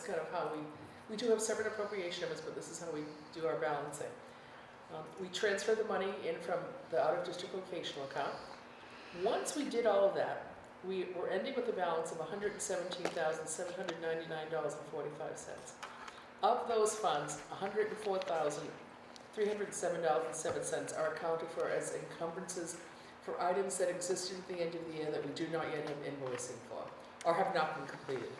kind of how we, we do have separate appropriation of us, but this is how we do our balancing. Um, We transfer the money in from the out-of-district vocational account. Once we did all of that, we were ending with a balance of hundred and seventeen thousand, seven hundred ninety-nine dollars and forty-five cents. Of those funds, hundred and four thousand, three hundred and seven dollars and seven cents are accounted for as encumbrances for items that existed at the end of the year that we do not yet have invoicing for, or have not been completed.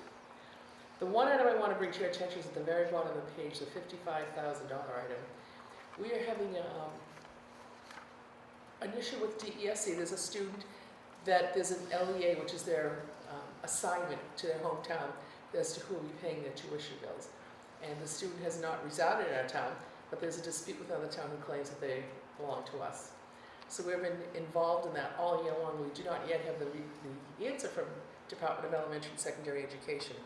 The one item I want to bring to your attention is at the very bottom of the page, the fifty-five thousand dollar item. We are having, um, an issue with DESE, there's a student that there's an LEA, which is their um, assignment to their hometown as to who will be paying their tuition bills. And the student has not resided in our town, but there's a dispute with another town who claims that they belong to us. So we've been involved in that all year long. We do not yet have the, re- the answer from Department of Elementary and Secondary Education.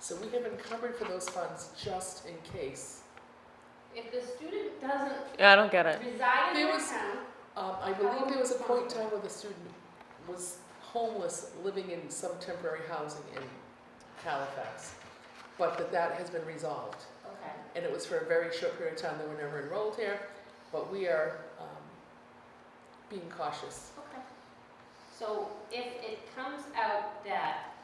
So we have encumbered for those funds just in case. If the student doesn't Yeah, I don't get it. reside in There their was- town, Um, I believe there was a point in time where the student was homeless, living in some temporary housing in Halifax, but that that has been resolved. okay. And it was for a very short period of time, they were never enrolled here, but we are, um, being cautious. Okay. So if it comes out that,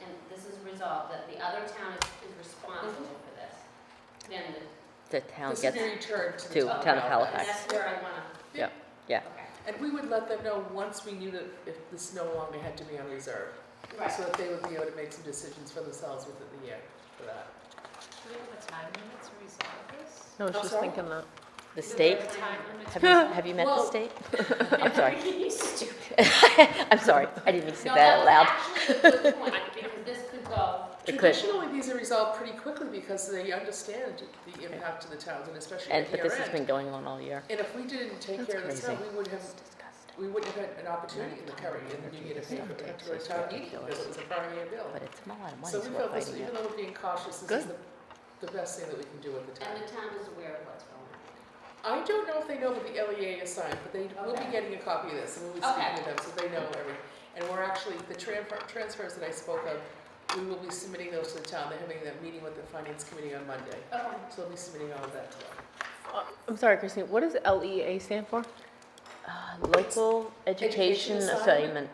and this is resolved, that the other town is is responsible Mm-hmm. for this, then the. The town This is gets, being returned to the to town. town of And Halifax. that's where I wanna, yeah. okay. And we would let them know once we knew that if this no longer had to be on reserve, so Right. that they would be able to make some decisions for themselves within the year for that. Do we have a time limit to resolve this? I was I'm just sorry? thinking that. The Is state? there a time limit Have to you, resolve? have you met the Well- state? I'm sorry. Stupid. I'm sorry. I didn't mean to say No, that out loud. was actually a good point, because this could go, It could. Traditionally, these are resolved pretty quickly because they understand the impact to the towns and especially And, at but year this has been end. going on all year. And if we didn't take That's care of this town, crazy. we would have, It's disgusting. we wouldn't have had an opportunity in the current year to get a pay for it, to go to town meeting, because it was a prior year bill. But it's a lot of money, So we so we're felt this, fighting even it. though we're being cautious, this is Good. the, the best thing that we can do at the time. and the town is aware of what's going I don't know if they know what the LEA is signed, but they will be Okay. getting a copy of this, and we'll be speaking Okay. to them, so they know everything. And we're actually, the transfer, transfers that I spoke of, we will be submitting those to the town, they're having that meeting with the finance committee on Monday. on. Okay. So we'll be submitting all of that to them. I'm sorry, Christine, what does LEA stand for? Uh, Local Education Education Assignment. Assignment,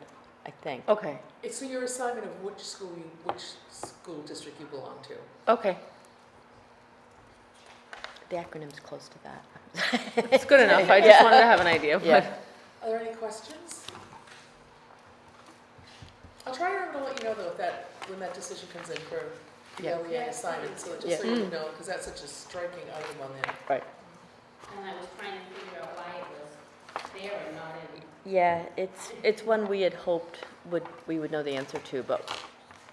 I think. Okay, It's so your assignment of which school you, which school district you belong to. okay. The acronym's close to that. It's good enough, I just wanted to have an idea, Are there any questions? I'll try and remember to let you know though, if that, when that decision comes in for the Yeah. LEA assignment, so Yeah. Mm. just so you know, because that's such a striking item on there. Right. And I was trying to figure out why it was there and not in. Yeah, it's, it's one we had hoped would, we would know the answer to, but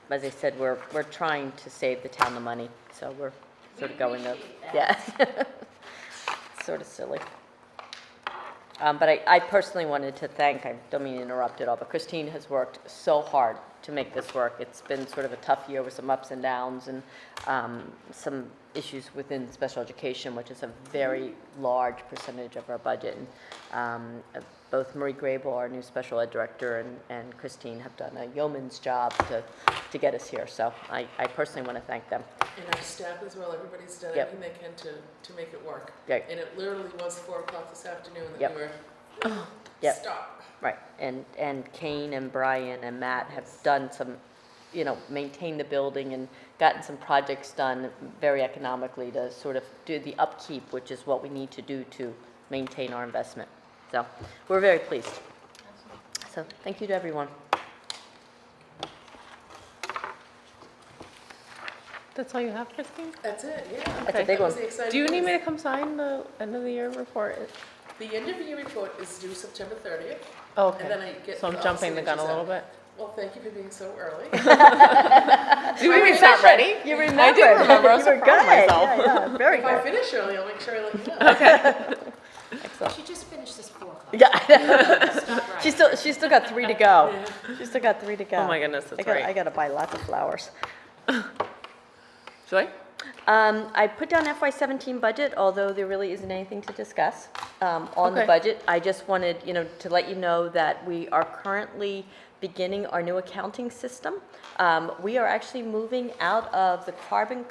as I said, we're, we're trying to save the town the money, so we're sort of going up. appreciate that. Yeah. Sort of silly. Um, but I, I personally wanted to thank, I don't mean to interrupt at all, but Christine has worked so hard to make this work. It's been sort of a tough year with some ups and downs and, um, some issues within special education, which is a very large percentage of our budget. And, um, uh, both Marie Grable, our new special ed director, and, and Christine have done a yeoman's job to, to get us here. So I, I personally want to thank them. And our staff as well, everybody's done Yep. everything they can to, to make it work. Yeah. And it literally was four o'clock this afternoon that Yep. we were, Yep. stop. Right, and, and Kane and Brian and Matt have done some, you know, maintained the building and gotten some projects done very economically to sort of do the upkeep, which is what we need to do to maintain our investment. So, we're very pleased. So, thank you to everyone. That's all you have, Christine? That's it, yeah. That's a big That was one. the exciting Do you need me news. to come sign the end of the year report? The end of year report is due September thirtieth. Oh, And then Okay, I get. so I'm all jumping the gun a signatures little out. bit. Well, thank you for being so early. Do we it's not ready? You remember. I do remember, I was so proud of myself. Very If I good. finish early, I'll make sure I let you know. Excellent. She just finished this four o'clock. Yeah, Stop right. she's still, she's still got three to go. She's still got three to go. Oh my goodness, I that's gotta, I right. gotta buy lots of flowers. Should I? Um, I put down FY seventeen budget, although there really isn't anything to discuss, um, on the Okay. budget. I just wanted, you know, to let you know that we are currently beginning our new accounting system. Um, we are actually moving out of the carbon